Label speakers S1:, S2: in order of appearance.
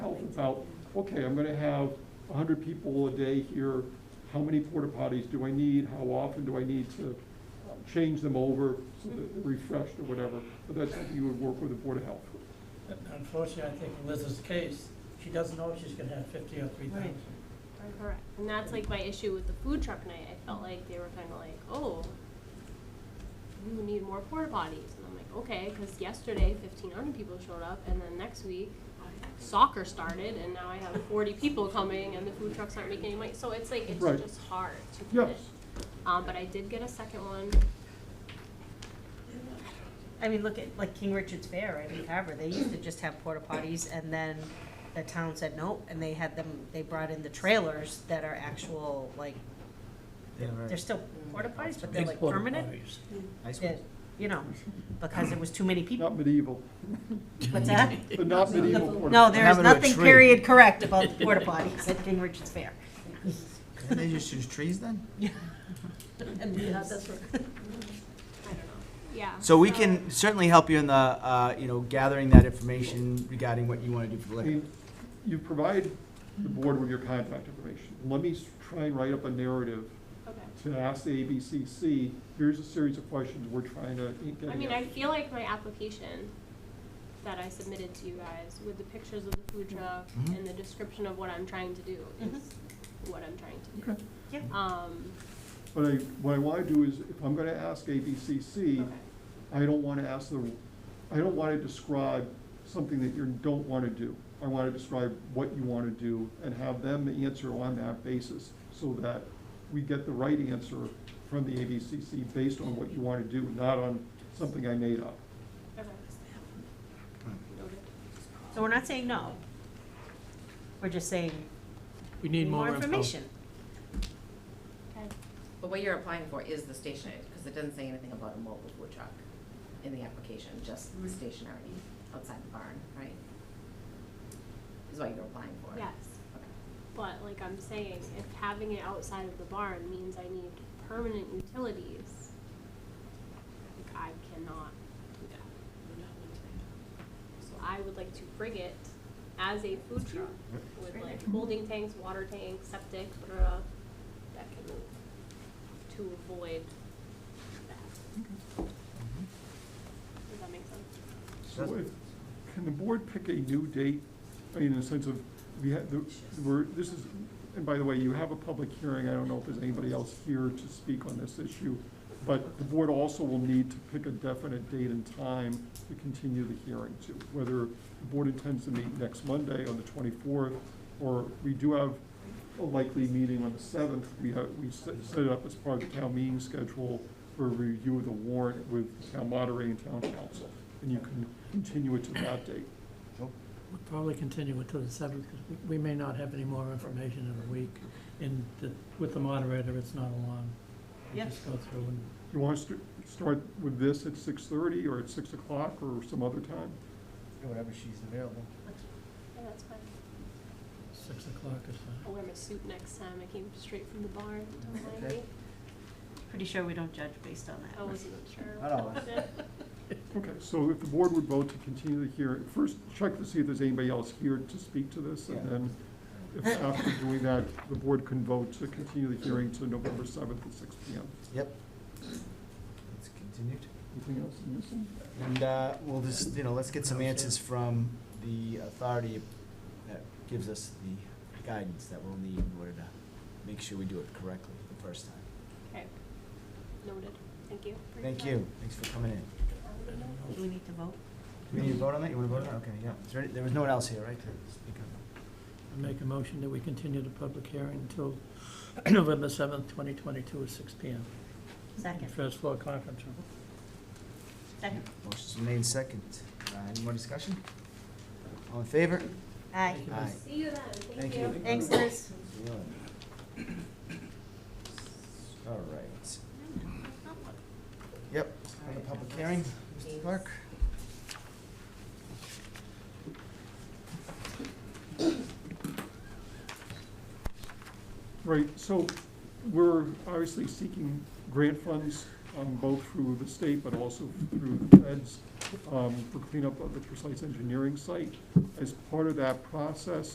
S1: about, okay, I'm gonna have hundred people a day here, how many porta potties do I need, how often do I need to uh, change them over, so that they're refreshed or whatever, but that's something you would work with the Board of Health.
S2: Unfortunately, I think in Liz's case, she doesn't know if she's gonna have fifty or three thousand.
S3: Correct, and that's like my issue with the food truck night, I felt like they were kinda like, oh, you need more porta potties, and I'm like, okay, cause yesterday fifteen hundred people showed up, and then next week soccer started, and now I have forty people coming, and the food trucks aren't making any money, so it's like,
S1: Right.
S3: it's just hard to
S1: Yeah.
S3: finish. Um, but I did get a second one,
S4: I mean, look at like King Richard's Fair, right, in Carver, they used to just have porta potties and then the town said no, and they had them, they brought in the trailers that are actual, like, they're still porta potties, but they're like permanent, that, you know, because it was too many people.
S1: Not medieval,
S4: What's that?
S1: but not medieval porta.
S4: No, there is
S5: Having a
S4: nothing
S5: tree.
S4: period correct about the porta potties at King Richard's Fair.
S5: Can they just use trees then?
S4: And that's
S3: I don't know, yeah.
S5: So we can certainly help you in the, uh, you know, gathering that information regarding what you want to do for
S1: I
S5: liquor.
S1: mean, you provide the board with your contact information. Let me s- try and write up a narrative
S3: Okay.
S1: to ask the ABCC, here's a series of questions we're trying to get
S3: I mean, I
S1: answers.
S3: feel like my application that I submitted to you guys with the pictures of the food truck
S5: Mhm.
S3: and the description of what I'm trying to do is what I'm trying to do.
S1: Okay.
S4: Yeah.
S3: Um,
S1: But I, what I wanna do is, if I'm gonna ask ABCC,
S3: Okay.
S1: I don't wanna ask the, I don't wanna describe something that you don't wanna do. I wanna describe what you wanna do and have them answer on that basis, so that we get the right answer from the ABCC based on what you wanna do, not on something I made up.
S3: okay. Noted.
S4: So we're not saying no. We're just saying,
S2: We
S4: need more information.
S3: Okay.
S6: But what you're applying for is the stationary, because it doesn't say anything about a mobile food truck in the application, just stationary outside the barn, right? Is what you're applying for.
S3: Yes,
S6: Okay.
S3: but like I'm saying, if having it outside of the barn means I need permanent utilities, like I cannot do that. So I would like to bring it as a food truck with like holding tanks, water tanks, septic, blah, that can move to avoid that.
S5: Mm-hmm.
S3: Does that make sense?
S1: So if- can the board pick a new date, I mean, in the sense of, we had, the- we're, this is, and by the way, you have a public hearing, I don't know if there's anybody else here to speak on this issue, but the board also will need to pick a definite date and time to continue the hearing to, whether the board intends to meet next Monday on the twenty-fourth, or we do have a likely meeting on the seventh, we have, we set set it up as part of the town meeting schedule for review of the warrant with town moderator and town council, and you can continue it to that date.
S2: We'll probably continue until the seventh, because we may not have any more information in a week. And the- with the moderator, it's not a long, we
S4: Yeah.
S2: just go through and,
S1: You want us to start with this at six thirty, or at six o'clock, or some other time?
S5: Whatever she's available.
S3: Yeah, that's fine.
S2: six o'clock or
S3: I'll
S2: so.
S3: wear my suit next time. I came straight from the barn. Don't mind
S5: Okay.
S3: me.
S4: Pretty sure we don't judge based on that.
S3: I wasn't sure.
S5: Not always.
S1: Okay, so if the board would vote to continue the hearing, first check to see if there's anybody else here to speak to this, and
S5: Yeah.
S1: then if after doing that, the board can vote to continue the hearing to November seventh at six P M.
S5: Yep. It's continued.
S1: Anything else I'm missing?
S5: And uh, we'll just, you know, let's get some answers from the authority that gives us the guidance that we'll need in order to make sure we do it correctly the first time.
S3: Okay. Noted. Thank you. for your
S5: Thank
S3: time.
S5: you, thanks for coming in.
S4: Do we need to vote?
S5: Do we need to vote on that? You want to vote on it? Okay, yeah. Is there, any- there was no one else here, right? to speak on
S2: I Make a motion that we continue the public hearing until November seventh, twenty twenty-two, at six P M.
S4: Second,
S2: First floor conference room.
S4: second.
S5: it? Motion's been made second. Uh, Any more discussion? All in favor?
S4: Aye.
S5: Aye.
S3: See you then.
S5: Thank you.
S4: Thanks, Liz.
S5: Yeah. All right. Yep, on the public hearing, Mr. Clark.
S1: Right, so we're obviously seeking grant funds, um, both through the state but also through the feds, um, for cleanup of the precise engineering site. As part of that process,